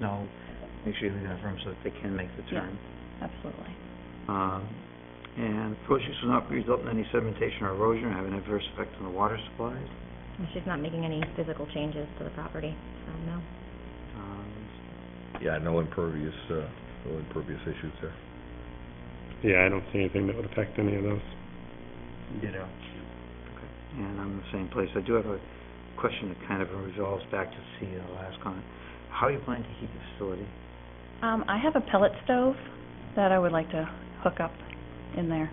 know, make sure you leave enough room so that they can make the Yeah. turn. Absolutely. Um, and projects will not result in any sedimentation or erosion or have an adverse effect on the water supplies. And she's not making any physical changes to the property, so no. Um, Yeah, no impervious, uh, no impervious issues there. Yeah, I don't see anything that would affect any of those. Ditto. Okay, and I'm in the same place. I do have a question that kind of resolves back to C, the last comment. How are you planning to heat the facility? Um, I have a pellet stove that I would like to hook up in there.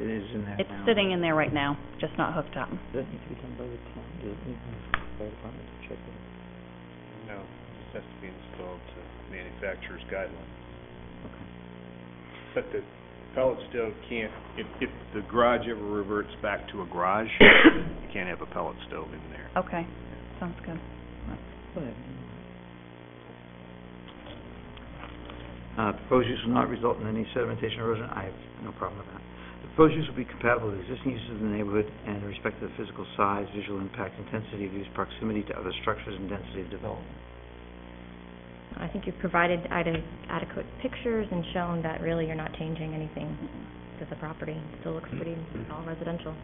It is in there It's now. sitting in there right now, just not hooked up. Does that need to be done by the town? Does it need to be done by the department to check it? No, this has to be installed to manufacturer's guidelines. But the pellet stove can't, if, if the garage ever reverts back to a garage, you can't have a pellet stove in there. Okay, sounds good. Whatever. Uh, proposed use will not result in any sedimentation or erosion, I have no problem with that. The Proposed use will be compatible with existing uses in the neighborhood and in respect to the physical size, visual impact, intensity of use, proximity to other structures, and density of development. I think you've provided ade- adequate pictures and shown that really you're not changing anything to the property. It Still looks pretty, all residential.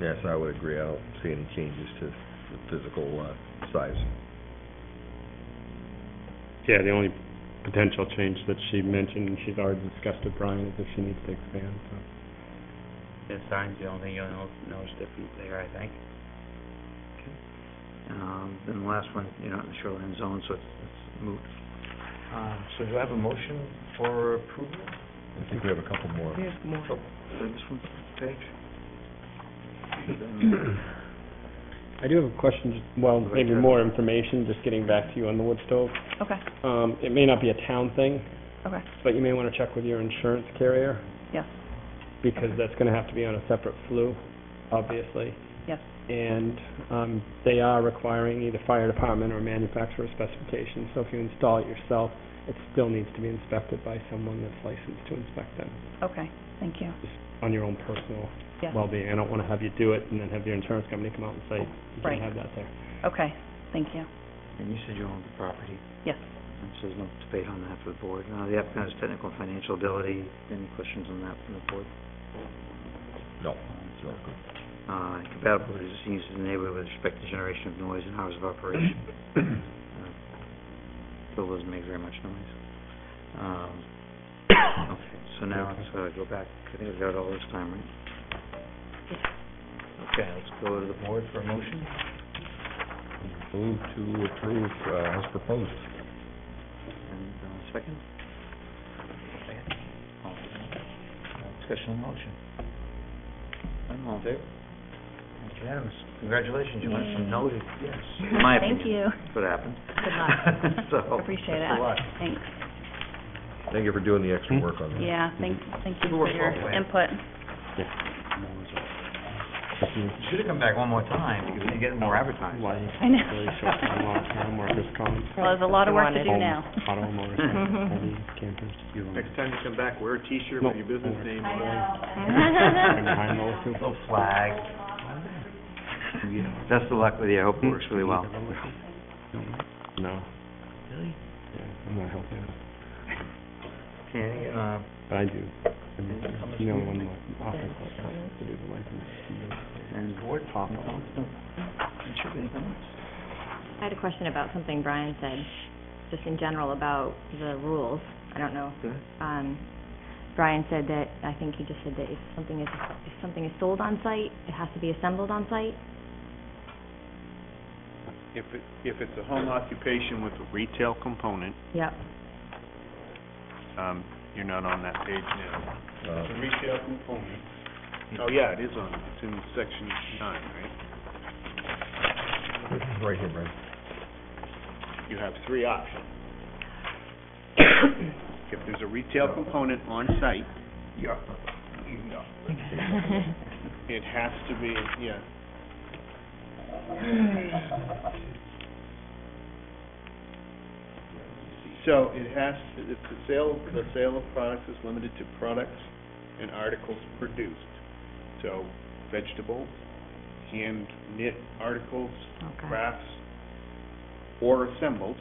Yes, I would agree. I don't see any changes to the physical, uh, size. Yeah, the only potential change that she mentioned, and she's already discussed with Brian, is if she needs to expand, so. The sign's the only thing you'll know- notice different there, I think. Um, then the last one, you're not in the shoreline zone, so it's it's moot. Um, so do I have a motion for approval? I think we have a couple more. Oh, This one, page? I do have a question, just- well, Right maybe there. more information, just getting back to you on the wood stove. Okay, Um, it may not be a town thing, okay, but you may wanna check with your insurance carrier, yes, because that's gonna have to be on a separate flue, obviously. yes, And, um, they are requiring either fire department or manufacturer specifications, so if you install it yourself, it still needs to be inspected by someone that's licensed to inspect them, okay, thank you, just on your own personal yes, well-being. I don't wanna have you do it and then have your insurance company come out and say, you Right. can't have that there. okay, thank you, And you said you owned the property? yes. And so there's no debate on that for the board. Now, the applicant has technical and financial ability. Any questions on that from the board? No, it's not good. Uh, compatible with existing uses in the neighborhood with respect to generation of noise and hours of operation. Uh, Bill doesn't make very much noise. Um, okay, so now let's, uh, go back. I think we got all this time, right? Okay, let's go to the board for a motion. Move to approve, uh, as proposed. And, uh, second? Second. All in favor? Uh, Discussion on the motion. None, all in favor? That's unanimous. Congratulations, you went from no to yes. In my Thank opinion, you, That's what happened. Good luck. So, Appreciate best of it. luck. thanks, Thank you for doing the extra work on that. Hmm? yeah, thank, thank you for your input. You Should have come back one more time, because you're getting more advertising. Why, I know. really short time off, time workers' comp, Well, there's a lot of work to do home, now. Mm-hmm. auto, motorcycle, heavy campers. Next time you come back, wear a t-shirt with your business name on it. And behind those two. Little flag. Yeah, Best of luck with you, I hope it works really well. No, Really? yeah, I'm not helping out, Okay, uh, but I do. I'm the only one that offers that help to do the license. and board pop. I had a question about something Brian said, just in general about the rules. I don't know. Go ahead. Um, Brian said that, I think he just said that if something is, if something is sold on site, it has to be assembled on site. If it, if it's a home occupation with a retail component, Yep. um, you're not on that page now. Uh, The retail component. Oh, yeah, it is on, it's in section nine, right? Right here, Brad. You have three options. If there's a retail component on site, yeah, you can go. It has to be, yeah. So it has, to if the sale, the sale of products is limited to products and articles produced. So vegetables, hand knit articles, Okay. crafts, or assembled,